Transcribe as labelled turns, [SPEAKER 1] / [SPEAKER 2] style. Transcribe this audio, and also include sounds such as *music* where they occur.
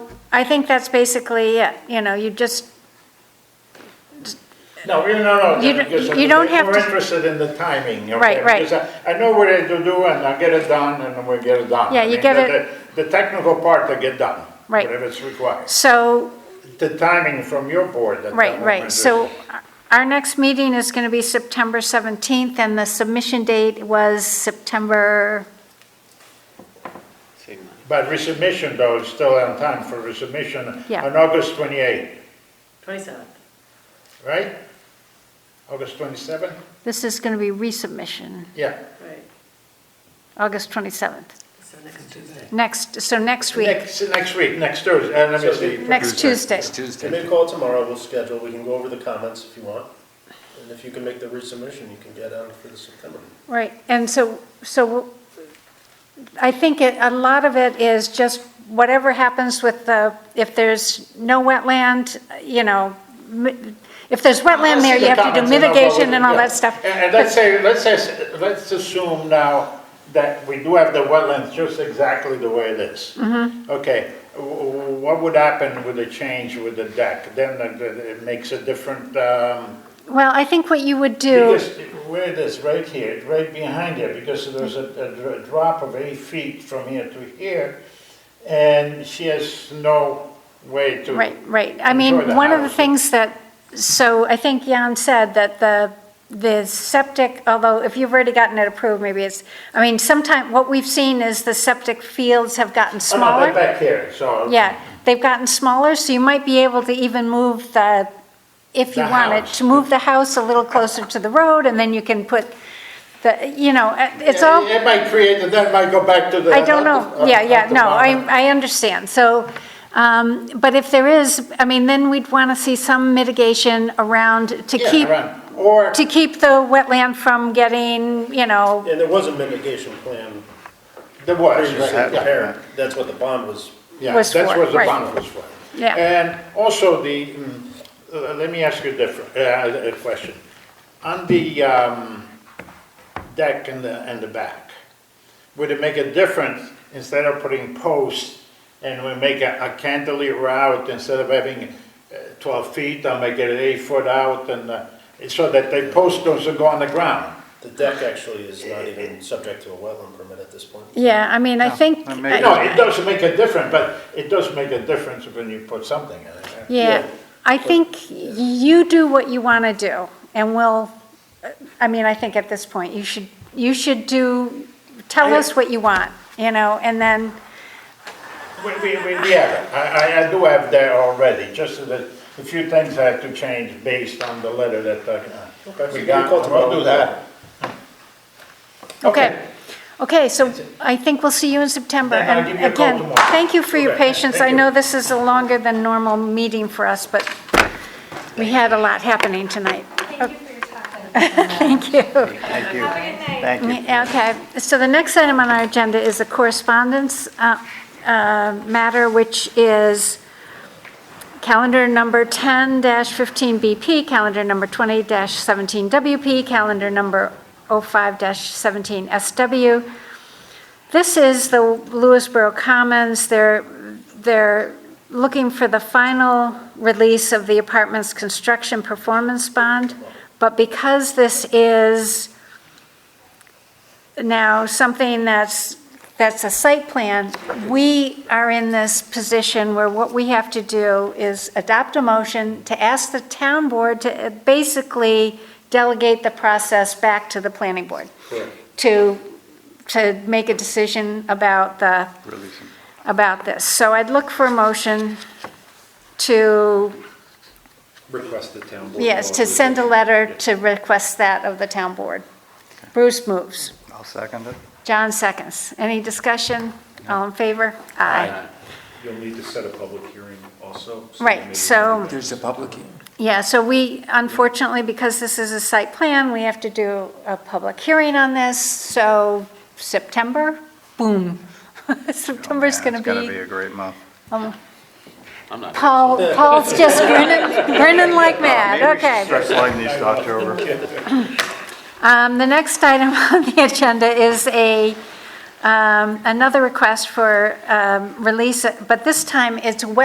[SPEAKER 1] I think that's basically it, you know, you just,
[SPEAKER 2] No, we- no, no,
[SPEAKER 1] You
[SPEAKER 2] no,
[SPEAKER 1] don't-
[SPEAKER 2] because
[SPEAKER 1] you don't have
[SPEAKER 2] we're
[SPEAKER 1] to-
[SPEAKER 2] interested in the timing, okay?
[SPEAKER 1] Right, right.
[SPEAKER 2] Because I I know what I to do, and I get it done, and we get it done.
[SPEAKER 1] Yeah,
[SPEAKER 2] I
[SPEAKER 1] you
[SPEAKER 2] mean,
[SPEAKER 1] get
[SPEAKER 2] the-
[SPEAKER 1] it-
[SPEAKER 2] The the technical part to get done.
[SPEAKER 1] Right.
[SPEAKER 2] Whatever it's required.
[SPEAKER 1] so,
[SPEAKER 2] The timing from your board at that
[SPEAKER 1] right, right.
[SPEAKER 2] moment is-
[SPEAKER 1] So our next meeting is going to be September 17th, and the submission date was September,
[SPEAKER 3] Same month.
[SPEAKER 2] But resubmission, though, is still on time for resubmission.
[SPEAKER 1] Yeah.
[SPEAKER 2] On August 28,
[SPEAKER 4] 27th.
[SPEAKER 2] right? August 27?
[SPEAKER 1] this is going to be resubmission,
[SPEAKER 2] Yeah.
[SPEAKER 4] Right,
[SPEAKER 1] August 27th.
[SPEAKER 4] so next Tuesday.
[SPEAKER 1] Next, so next week,
[SPEAKER 2] Next, next week, next Thursday, uh, let me
[SPEAKER 5] So
[SPEAKER 2] see.
[SPEAKER 1] next Tuesday.
[SPEAKER 3] It's
[SPEAKER 5] Give me a
[SPEAKER 3] Tuesday.
[SPEAKER 5] call tomorrow, we'll schedule, we can go over the comments if you want. And if you can make the resubmission, you can get on for the September.
[SPEAKER 1] Right, and so, so I think it- a lot of it is just whatever happens with the, if there's no wetland, you know, mi- if there's wetland there, you have to do mitigation and all that stuff.
[SPEAKER 2] And and let's say, let's say, let's assume now that we do have the wetlands just exactly the way it is.
[SPEAKER 1] Mm-hmm.
[SPEAKER 2] Okay, w- w- what would happen with the change with the deck? Then the- the- it makes a different, um,
[SPEAKER 1] Well, I think what you would do,
[SPEAKER 2] because where it is, right here, right behind here, because there's a, a dr- drop of eight feet from here to here, and she has no way to.
[SPEAKER 1] right, right, I
[SPEAKER 2] Enjoy the
[SPEAKER 1] mean, one of the
[SPEAKER 2] house.
[SPEAKER 1] things that, so I think Jan said that the, the septic, although if you've already gotten it approved, maybe it's, I mean, sometime, what we've seen is the septic fields have gotten
[SPEAKER 2] Oh, no,
[SPEAKER 1] smaller.
[SPEAKER 2] they're back here, so.
[SPEAKER 1] Yeah, they've gotten smaller, so you might be able to even move the, if you
[SPEAKER 2] The
[SPEAKER 1] wanted,
[SPEAKER 2] house.
[SPEAKER 1] to move the house a little closer to the road, and then you can put the, you know, it- it's
[SPEAKER 2] Yeah,
[SPEAKER 1] all,
[SPEAKER 2] It might create, that might go back to the.
[SPEAKER 1] I don't know, yeah, yeah, no,
[SPEAKER 2] Uh,
[SPEAKER 1] I, I understand, so, um, but if there is, I mean, then we'd want to see some mitigation around to
[SPEAKER 2] yeah,
[SPEAKER 1] keep,
[SPEAKER 2] right. Or,
[SPEAKER 1] to keep the wetland from getting, you know,
[SPEAKER 5] And there was a mitigation plan
[SPEAKER 2] there was,
[SPEAKER 5] previously
[SPEAKER 2] right, yeah.
[SPEAKER 5] prepared, that's what the bond was.
[SPEAKER 2] Yeah,
[SPEAKER 1] Was
[SPEAKER 2] that's
[SPEAKER 1] for,
[SPEAKER 2] what the
[SPEAKER 1] right.
[SPEAKER 2] bond was for.
[SPEAKER 1] Yeah.
[SPEAKER 2] And also the, mm, uh, let me ask you a different, uh, a question. On the, um, deck and the, and the back, would it make a difference instead of putting posts and we make a a cantilever out instead of having uh, twelve feet, I'll make it eight foot out and, uh, so that the post doesn't go on the ground?
[SPEAKER 5] The deck actually is not even subject to a wetland permit at this point.
[SPEAKER 1] yeah, I mean, I think.
[SPEAKER 2] No, it does make a difference, but it does make a difference when you put something in it.
[SPEAKER 1] Yeah, I think you do what you want to do, and we'll, I mean, I think at this point, you should, you should do, tell us what you want, you know, and then,
[SPEAKER 2] We, we, we, we have it. I, I, I do have that already, just so that a few things I have to change based on the letter that, uh,
[SPEAKER 5] so
[SPEAKER 2] we
[SPEAKER 5] you
[SPEAKER 2] got.
[SPEAKER 5] call tomorrow.
[SPEAKER 2] We'll do that.
[SPEAKER 1] okay. Okay, so I think we'll see you in September.
[SPEAKER 2] Then I'll
[SPEAKER 1] And
[SPEAKER 2] give you a call tomorrow.
[SPEAKER 1] Again, thank you for your
[SPEAKER 2] Okay,
[SPEAKER 1] patience. I
[SPEAKER 2] thank you.
[SPEAKER 1] know this is a longer than normal meeting for us, but we had a lot happening tonight.
[SPEAKER 6] Thank you for your time.
[SPEAKER 1] *laughs* Thank you.
[SPEAKER 6] Thank you. Have a good night.
[SPEAKER 1] Okay, so the next item on our agenda is a correspondence uh, uh, matter, which is calendar number 10-15BP, calendar number 20-17WP, calendar number 05-17SW. This is the Lewisboro Commons. They're, they're looking for the final release of the apartment's construction performance bond, but because this is now something that's, that's a site plan, we are in this position where what we have to do is adopt a motion to ask the town board to uh, basically delegate the process back to the planning board. To, to make a decision about the,
[SPEAKER 3] Releasing.
[SPEAKER 1] about this. So I'd look for a motion to,
[SPEAKER 7] request the town board.
[SPEAKER 1] yes, to send a letter to request that of the town board. Bruce moves.
[SPEAKER 7] I'll second it.
[SPEAKER 1] John seconds. Any discussion? All in favor? Aye.
[SPEAKER 7] You'll need to set a public hearing also.
[SPEAKER 1] Right,
[SPEAKER 7] maybe-
[SPEAKER 1] so-
[SPEAKER 3] There's a public, hearing.
[SPEAKER 1] Yeah, so we, unfortunately, because this is a site plan, we have to do a public hearing on this, so September, boom. *laughs* September's
[SPEAKER 7] Oh, Yeah,
[SPEAKER 1] going to
[SPEAKER 7] It's gonna be
[SPEAKER 1] be,
[SPEAKER 7] a great month.
[SPEAKER 3] I'm not.
[SPEAKER 1] Paul, Paul's just
[SPEAKER 7] *laughs*
[SPEAKER 1] grinning, grinning like mad, okay.
[SPEAKER 7] Stretch leg needs to October.
[SPEAKER 1] Um, The next *laughs* item on the agenda is a, um, another request for um, release, but this time it's wet.